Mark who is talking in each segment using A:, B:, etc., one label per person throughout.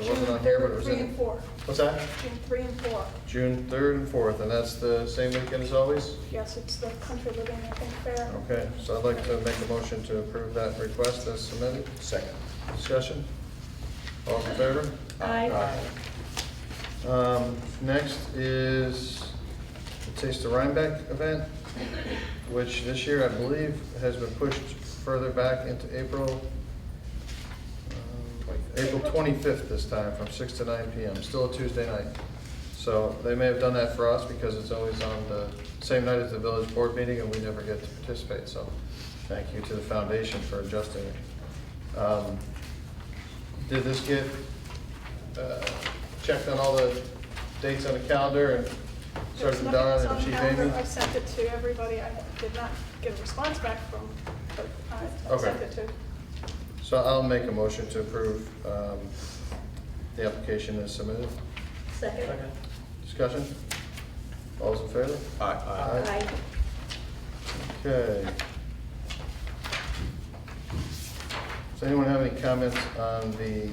A: wasn't on here, but it was
B: June
A: in.
B: three and four,
A: What's that?
B: June three and four.
A: June 3rd and 4th, and that's the same weekend as always?
B: Yes, it's the Country Living, I think, fair.
A: Okay, so I'd like to make a motion to approve that request as submitted.
C: Second.
A: Discussion? All in favor?
B: Aye.
A: Um, Next is the Taste of Rhinebeck event, which this year, I believe, has been pushed further back into April, um, April 25th this time, from 6 to 9 PM, still a Tuesday night. So they may have done that for us because it's always on the same night as the village board meeting and we never get to participate. So thank you to the foundation for adjusting it. Um, Did this get uh, checked on all the dates on the calendar and started
B: There's
A: from
B: nothing
A: Donna
B: that's on
A: and
B: the
A: Chief
B: calendar.
A: Amy?
B: I sent it to everybody. I did not get a response back from, but I- I
A: Okay.
B: sent it to.
A: So I'll make a motion to approve um, the application as submitted.
B: Second.
A: Discussion? All those in favor? Aye. Okay. Does anyone have any comments on the,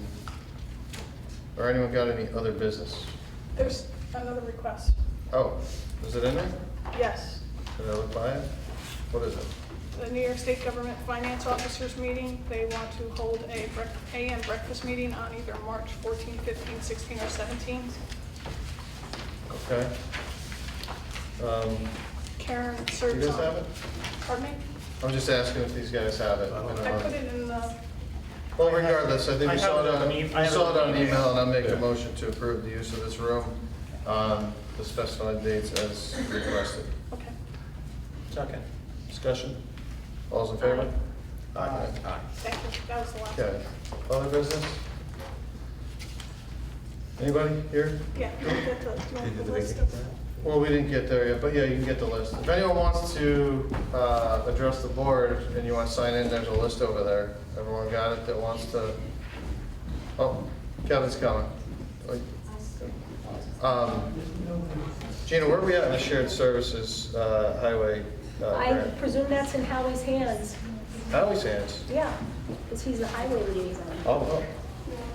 A: or anyone got any other business?
B: There's another request.
A: Oh, is it in there?
B: Yes,
A: Did I look by it? What is it?
B: the New York State Government Finance Officers Meeting, they want to hold a brec- AM breakfast meeting on either March 14, 15, 16, or 17.
A: Okay. Um,
B: Karen
A: Do
B: serves on.
A: you guys have it?
B: Pardon me?
A: I'm just asking if these guys have it. Uh,
B: I put it in the,
A: Well, regardless, I think
D: I
A: we saw
D: have
A: it
D: it
A: on,
D: on
A: we
D: e- I have
A: saw
D: it
A: it on
D: on email.
A: email, and I make a
C: Yeah.
A: motion to approve the use of this room on the specified dates as requested.
B: okay.
D: Second.
A: Discussion? All's in favor? Aye.
C: Aye.
B: Thank you, that was the last.
A: Okay. Other business? Anybody here?
B: Yeah, you get the,
C: Did you
B: do you want
C: do
B: the
C: the
B: list
C: vacant
B: of-
A: Well, we didn't get there yet, but yeah, you can get the list. If anyone wants to uh, address the board and you want to sign in, there's a list over there. Everyone got it that wants to? Oh, Kevin's coming. Um, Gina, where are we at in the shared services uh, highway uh,
E: I
A: grant?
E: presume that's in Howie's hands,
A: Highway sands.
E: yeah, because he's the highway liaison.
A: Oh.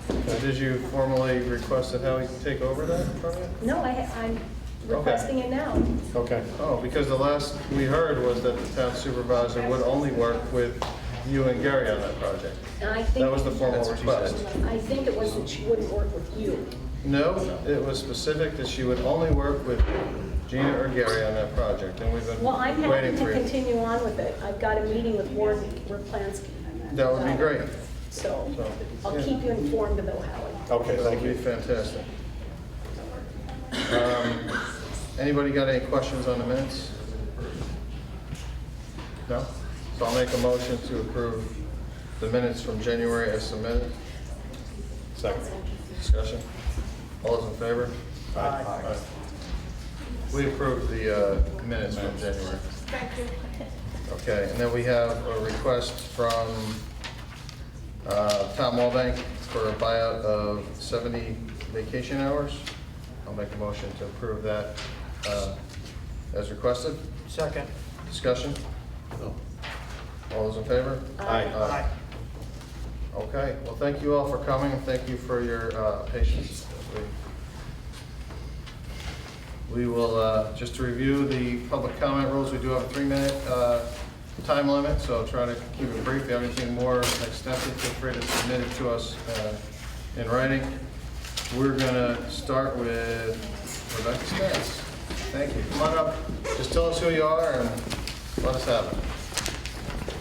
A: So Did you formally request that Howie take over that from you?
E: No, I, ha- I'm requesting it now.
A: Okay. Oh, because the last we heard was that the town supervisor would only work with you and Gary on that project.
E: And I
A: That was the
E: think,
A: formal request.
E: I think it was that she wouldn't work with you.
A: No, it was specific that she would only work with Gina or Gary on that project, and we've
E: Well, I'm
A: been
E: happy
A: waiting
E: to
A: for you.
E: continue on with it. I've got a meeting with Warren Replansky.
A: That would be great.
E: So
A: So,
E: I'll
A: yeah.
E: keep you informed about Howie.
C: Okay,
A: That would
C: thank
A: be
C: you.
A: fantastic. Um, Anybody got any questions on the minutes? No? So I'll make a motion to approve the minutes from January as submitted.
C: Second.
A: Discussion? All those in favor?
C: Aye.
A: We approved the uh, minutes from January.
B: Thank you.
A: Okay, and then we have a request from uh, Tom Walbank for a buyout of 70 vacation hours. I'll make a motion to approve that uh, as requested.
D: Second.
A: Discussion? All those in favor?
E: Aye.
A: Aye. Okay, well, thank you all for coming, and thank you for your uh, patience. We- We will, uh, just to review the public comment rules, we do have a three-minute uh, time limit, so try to keep it brief. If you have anything more extensive, feel free to submit it to us uh, in writing. We're gonna start with Rebecca Stats. Thank you. Come on up, just tell us who you are and let us have it.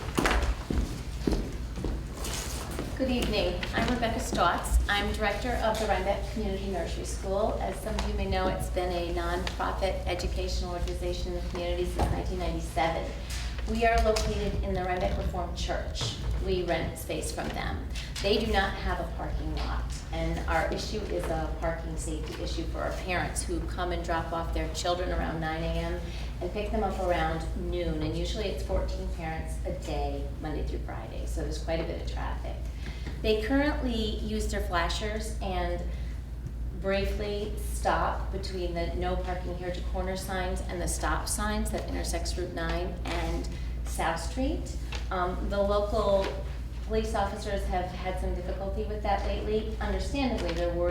F: Good evening. I'm Rebecca Stotts. I'm director of the Rhinebeck Community Nursery School. As some of you may know, it's been a nonprofit educational organization in the community since 1997. We are located in the Rhinebeck Reformed Church. We rent space from them. They do not have a parking lot, and our issue is a parking safety issue for our parents who come and drop off their children around 9 a.m. and pick them up around noon, and usually it's 14 parents a day, Monday through Friday, so there's quite a bit of traffic. They currently use their flashers and briefly stop between the no parking here to corner signs and the stop signs that intersects Route 9 and South Street. Um, The local police officers have had some difficulty with that lately. Understandably, they're worried